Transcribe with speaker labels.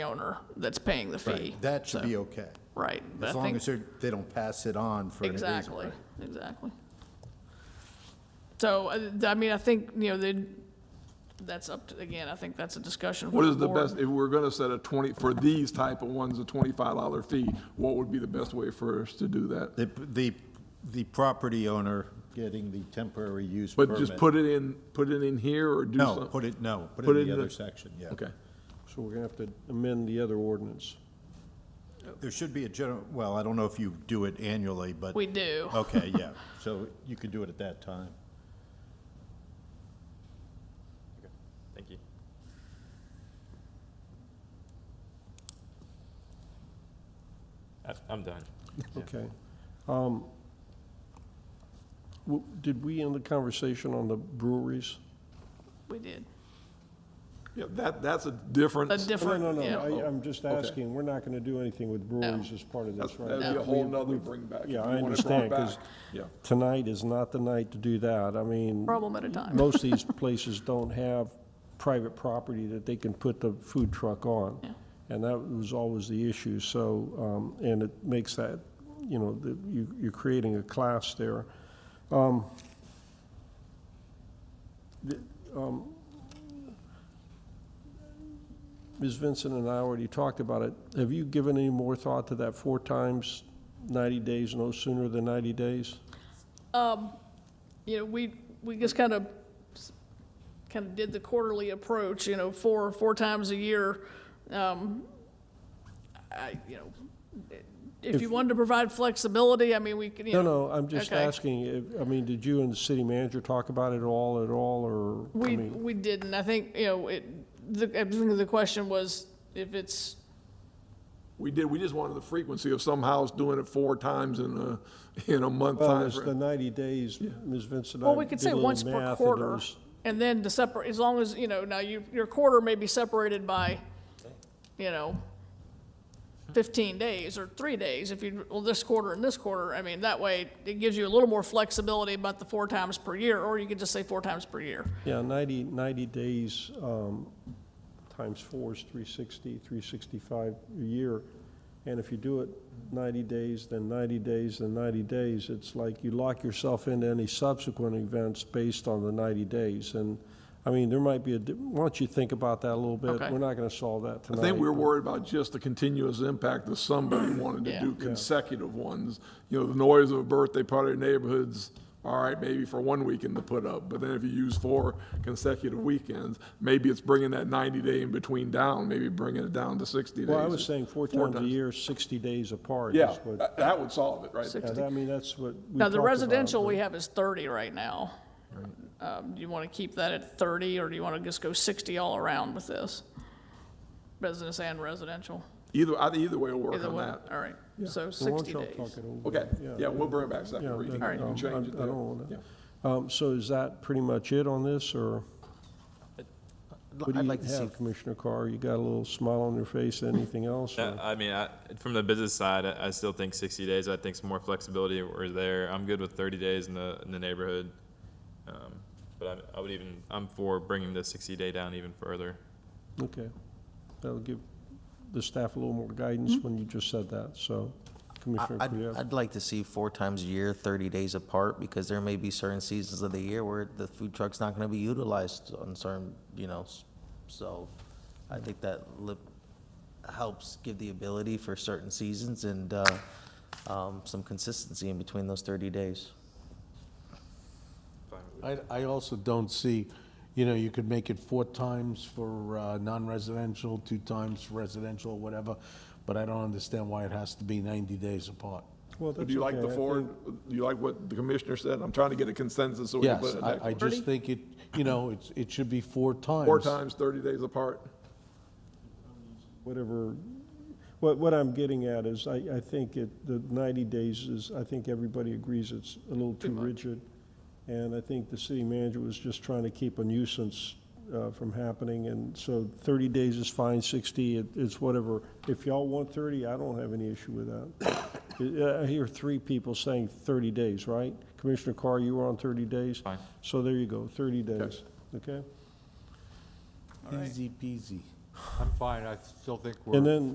Speaker 1: owner that's paying the fee.
Speaker 2: Right, That should
Speaker 1: So,
Speaker 2: be okay.
Speaker 1: Right. but
Speaker 2: As
Speaker 1: I
Speaker 2: long
Speaker 1: think-
Speaker 2: as they're, they don't pass it on for any reason.
Speaker 1: Exactly,
Speaker 2: right?
Speaker 1: exactly. So, uh, th- I mean, I think, you know, they, that's up to, again, I think that's a discussion for
Speaker 3: What is the
Speaker 1: board.
Speaker 3: best, if we're gonna set a twenty, for these type of ones, a twenty-five dollar fee, what would be the best way for us to do that?
Speaker 2: The, the, the property owner getting the temporary use permit.
Speaker 3: But just put it in, put it in here or do something?
Speaker 2: No, put it, no, put
Speaker 3: Put
Speaker 2: it in
Speaker 3: it
Speaker 2: the
Speaker 3: in
Speaker 2: other
Speaker 3: the-
Speaker 2: section, yeah.
Speaker 3: Okay.
Speaker 4: So we're gonna have to amend the other ordinance.
Speaker 2: There should be a general, well, I don't know if you do it annually, but.
Speaker 1: We do.
Speaker 2: Okay, yeah, so you can do it at that time.
Speaker 5: Thank you. I- Uh, I'm done.
Speaker 4: Okay. Um, w- Did we end the conversation on the breweries?
Speaker 1: We did.
Speaker 3: Yeah, that, that's a
Speaker 1: A
Speaker 3: different,
Speaker 1: different,
Speaker 4: No, no,
Speaker 1: yeah.
Speaker 4: no, I- I'm just asking, we're not gonna do anything with breweries as part of
Speaker 3: that's-
Speaker 4: this, right?
Speaker 3: that'd be a
Speaker 4: We-
Speaker 3: whole nother
Speaker 4: we-
Speaker 3: bring back. if
Speaker 4: Yeah,
Speaker 3: you
Speaker 4: I
Speaker 3: wanna bring it
Speaker 4: understand,
Speaker 3: back.
Speaker 4: 'cause
Speaker 3: Yeah.
Speaker 4: tonight is not the night to do that. I mean.
Speaker 1: Problem at a time.
Speaker 4: Most of these places don't have private property that they can put the food truck on.
Speaker 1: Yeah.
Speaker 4: And that was always the issue, so, um, and it makes that, you know, the- you, you're creating a class there. Um, the- um, Ms. Vincent and I already talked about it. Have you given any more thought to that four times 90 days, no sooner than 90 days?
Speaker 1: you know, we, we just kind of, kind of did the quarterly approach, you know, four, four times a year. Um, I, you know, if you wanted to provide flexibility, I mean, we could, you
Speaker 4: No,
Speaker 1: know.
Speaker 4: no, I'm just
Speaker 1: Okay.
Speaker 4: asking, if- I mean, did you and the city manager talk about it at all, at all, or? I
Speaker 1: We,
Speaker 4: mean,
Speaker 1: we didn't. I think, you know, it, the, I think the question was if it's,
Speaker 3: We did, we just wanted the frequency of some house doing it four times in a, in a month
Speaker 4: Well, it's the
Speaker 3: timeframe.
Speaker 4: 90 days, Ms. Vincent,
Speaker 1: well,
Speaker 4: I
Speaker 1: we could
Speaker 4: did
Speaker 1: say
Speaker 4: a
Speaker 1: once
Speaker 4: little
Speaker 1: per
Speaker 4: math, and it
Speaker 1: quarter.
Speaker 4: was
Speaker 1: And then to separate, as long as, you know, now you, your quarter may be separated by, you know, fifteen days or three days if you, well, this quarter and this quarter. I mean, that way it gives you a little more flexibility about the four times per year, or you could just say four times per year.
Speaker 4: Yeah, 90, 90 days um, times four is 360, 365 a year. And if you do it 90 days, then 90 days, then 90 days, it's like you lock yourself into any subsequent events based on the 90 days. And, I mean, there might be a, di- why don't you think about that a little bit?
Speaker 1: Okay.
Speaker 4: We're not going to solve that
Speaker 3: I
Speaker 4: tonight.
Speaker 3: think we were
Speaker 4: but-
Speaker 3: worried about just the continuous impact of somebody wanted to
Speaker 1: Yeah.
Speaker 3: do consecutive ones. You know, the noise of a birthday party in neighborhoods, all right, maybe for one weekend to put up, but then if you use four consecutive weekends, maybe it's bringing that ninety day in between down, maybe bringing it down to sixty days.
Speaker 4: Well, I was saying four times a year, 60 days apart. is
Speaker 3: Yeah,
Speaker 4: what-
Speaker 3: that, that would solve it, right?
Speaker 4: Yeah, that- I mean, that's what we
Speaker 1: Now, Uh, the
Speaker 4: talked about,
Speaker 1: residential
Speaker 4: but-
Speaker 1: we have is thirty right now. Um, do you want to keep that at thirty, or do you want to just go sixty all around with this? Business and residential,
Speaker 3: Either, I- either way will work
Speaker 1: either
Speaker 3: on
Speaker 1: way,
Speaker 3: that.
Speaker 1: all right, so
Speaker 4: Well, why don't
Speaker 1: sixty
Speaker 4: y'all
Speaker 1: days.
Speaker 4: talk it over?
Speaker 3: Okay, yeah, we'll bring it back second
Speaker 4: Yeah,
Speaker 3: reading.
Speaker 4: that-
Speaker 3: You can
Speaker 4: um,
Speaker 3: change
Speaker 4: I-
Speaker 3: it
Speaker 4: I
Speaker 3: there.
Speaker 4: don't wanna-
Speaker 3: Yeah.
Speaker 4: Um, So is that pretty much it on this, or what do
Speaker 6: I'd
Speaker 4: you
Speaker 6: like to see,
Speaker 4: have, Commissioner Carr? You got a little smile on your face, anything else? or-
Speaker 5: Uh, I mean, I, from the business side, I, I still think sixty days, I think some more flexibility were there. I'm good with thirty days in the, in the neighborhood. Um, But I, I would even, I'm for bringing the sixty day down even further.
Speaker 4: Okay, that'll give the staff a little more guidance when you just said that, so, Commissioner
Speaker 6: Hmm? I- I'd,
Speaker 4: Kujat.
Speaker 6: I'd like to see four times a year, thirty days apart, because there may be certain seasons of the year where the food truck's not gonna be utilized on certain, you know, s- so I think that lip, helps give the ability for certain seasons and, uh, um, some consistency in between those thirty days.
Speaker 7: I, I also don't see, you know, you could make it four times for uh, non-residential, two times for residential, whatever, but I don't understand why it has to be 90 days apart.
Speaker 4: Well,
Speaker 3: Do
Speaker 4: that's
Speaker 3: you like
Speaker 4: okay,
Speaker 3: the
Speaker 4: I
Speaker 3: four,
Speaker 4: think-
Speaker 3: do you like what the commissioner said? I'm trying to get a consensus so we can put
Speaker 7: Yes,
Speaker 3: it
Speaker 7: I, I
Speaker 3: back.
Speaker 7: just think it, you know, it's, it should be four times.
Speaker 3: Four times, 30 days apart.
Speaker 4: whatever, what, what I'm getting at is, I, I think it, the 90 days is, I think everybody agrees it's a little too rigid. And I think the city manager was just trying to keep a nuisance uh, from happening, and so 30 days is fine, 60, it- it's whatever. If y'all want 30, I don't have any issue with that. I I hear three people saying 30 days, right? Commissioner Carr, you were on 30 days?
Speaker 5: Fine.
Speaker 4: So there you go, 30 days, okay?
Speaker 7: Easy peasy.
Speaker 8: I'm fine, I still think we're.
Speaker 7: And then,